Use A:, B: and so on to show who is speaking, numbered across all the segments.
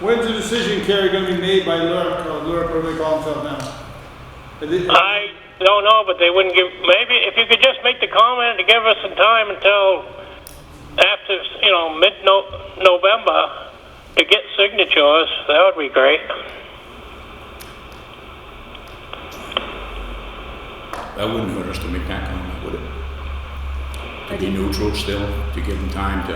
A: When's the decision, Kerry, gonna be made by uh, Lurk, or Lurk, whatever they call himself now? Are they-
B: I don't know, but they wouldn't give, maybe if you could just make the comment to give us some time until after, you know, mid-November to get signatures, that would be great.
C: That wouldn't hurt us to make that comment, would it? To be neutral still, to give them time to.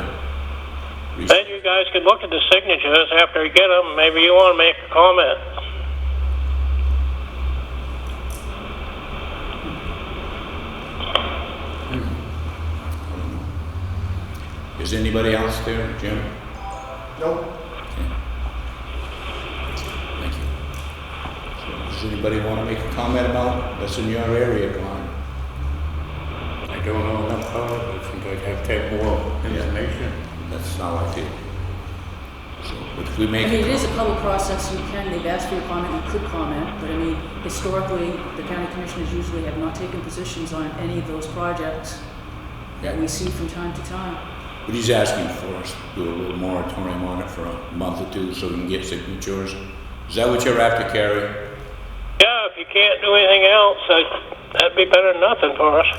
C: re-
B: Then you guys could look at the signatures after you get them, maybe you want to make a comment.
C: Is anybody else there, Jim?
A: Nope.
C: Thank you. So, Does anybody want to make a comment about that's in your area, Glenn?
D: I don't know enough about it, I think I'd have to have more information.
C: That's how I feel. So, but if we
E: I
C: make
E: mean, it
C: it,
E: is a public process, you can, they've asked for your comment, you could comment, but I mean, historically, the county commissioners usually have not taken positions on any of those projects that we see from time to time.
C: but he's asking for us to do a little moratorium on it for a month or two so we can get signatures. Is that what you're after, Carrie?
B: Yeah, if you can't do anything else, I- that'd be better than nothing for us.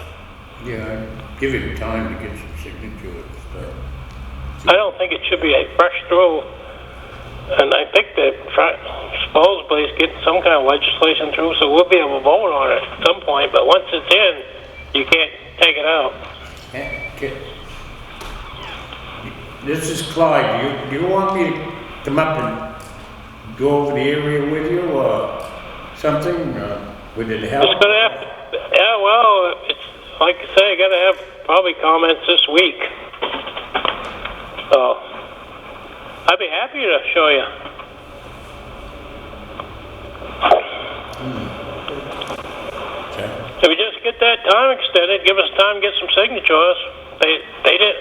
D: Yeah, I'd give him time to get some signatures, but
B: I don't think it should be a fresh through. And I think that try- supposedly it's getting some kind of legislation through, so we'll be able to vote on it at some point, but once it's in, you can't take it out.
D: heck, get- This is Clyde, you, do you want me to come up and go over the area with you or something, or would it help?
B: It's gonna have, yeah, well, it's, like I say, gotta have probably comments this week. So, I'd be happy to show you.
C: Okay.
B: If we just get that time extended, give us time to get some signatures. They, they did,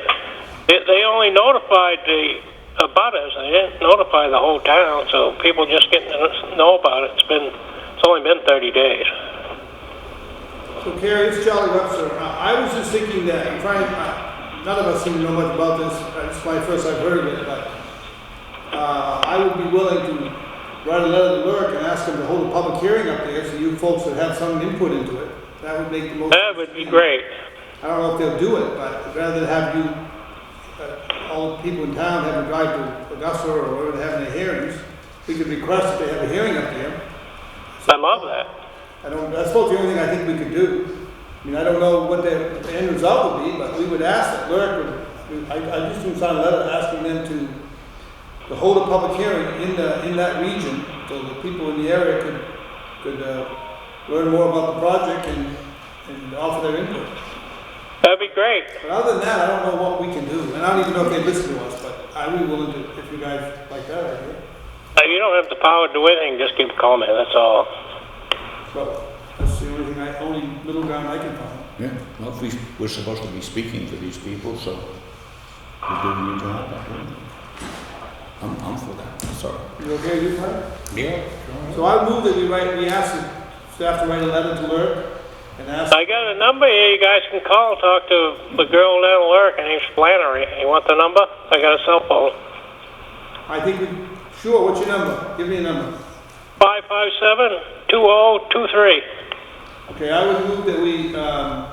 B: they, they only notified the abutters, they didn't notify the whole town, so people just getting to know about it. It's been, it's only been thirty days.
A: So Carrie, it's Charlie Webster. Uh, I I was just thinking that, I'm trying, I- none of us seem to know much about this. Uh, It's my first I've heard of it, but uh, I would be willing to write a letter to Lurk and ask him to hold a public hearing up there so you folks would have some input into it. That would make the most.
B: That would be great.
A: I don't know if they'll do it, but rather than have you, uh, all the people in town have to drive to Augusta or wherever they have their hearings, we could request that they have a hearing up there.
B: I love that.
A: I don't, that's about the only thing I think we could do. I mean, I don't know what the, what the end result would be, but we would ask that Lurk would, I, I just would sign a letter asking them to, to hold a public hearing in the, in that region, so the people in the area could, could, uh, learn more about the project and, and offer their input.
B: That'd be great.
A: But other than that, I don't know what we can do, and I don't even know if they listen to us, but I'd be willing to, if you guys like that idea.
B: Uh, You don't have the power to do anything, just give a comment, that's all.
A: But that's the only thing I, only middle ground I can find.
C: Yeah, well, if we, we're supposed to be speaking for these people, so we're doing your job, I think. I'm, I'm for that, sorry.
A: You okay with you, Frank?
D: Yeah.
A: So I move that we write, we ask the staff to write a letter to Lurk and ask,
B: I got a number here, you guys can call, talk to the girl down at Lurk, her name's Flannery. You want the number? I got a cell phone.
A: I think, we sure, what's your number? Give me a number.
B: Five five seven two oh two three.
A: Okay, I would move that we, um,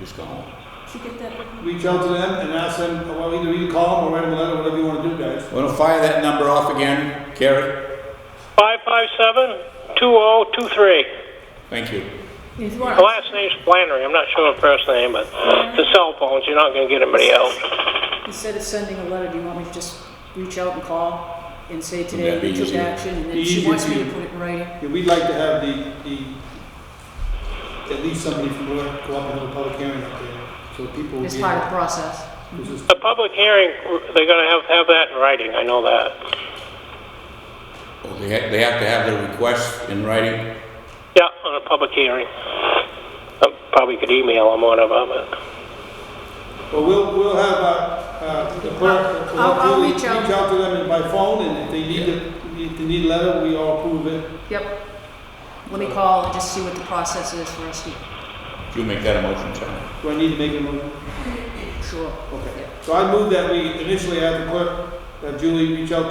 C: Just go on.
E: Did you get that?
A: reach out to them and ask them, well, either you call them or write them a letter, whatever you wanna do, guys.
C: Want to fire that number off again, Carrie?
B: Five five seven two oh two three.
C: Thank you.
E: If you want,
B: The last name's Flannery, I'm not sure her first name, but the cell phones, you're not gonna get anybody else.
E: instead of sending a letter, do you want me to just reach out and call and say today
C: that be
E: we took
C: easier?
E: action, and then
A: Easier
E: she wants me
A: to-
E: to put it in writing?
A: Yeah, we'd like to have the, the, at least somebody from Lurk go up and have a public hearing up there, so people will
E: It's
A: be.
E: part of the process.
A: This is-
B: The public hearing, they're gonna have, have that in writing, I know that.
C: Well, they have, they have to have their request in writing.
B: Yeah, on a public hearing. I probably could email them, whatever, but.
A: But we'll, we'll have, uh, uh, the clerk,
E: I'll- I'll
A: we'll
E: reach out.
A: Reach out to them by phone, and if they need, a- if they need a letter, we all approve it.
E: Yep. Let me call and just see what the process is for us to,
C: You make that a motion, Charlie.
A: Do I need to make a motion?
E: sure.
A: Okay.
E: Yeah.
A: So I move that we initially have the clerk, that Julie reach out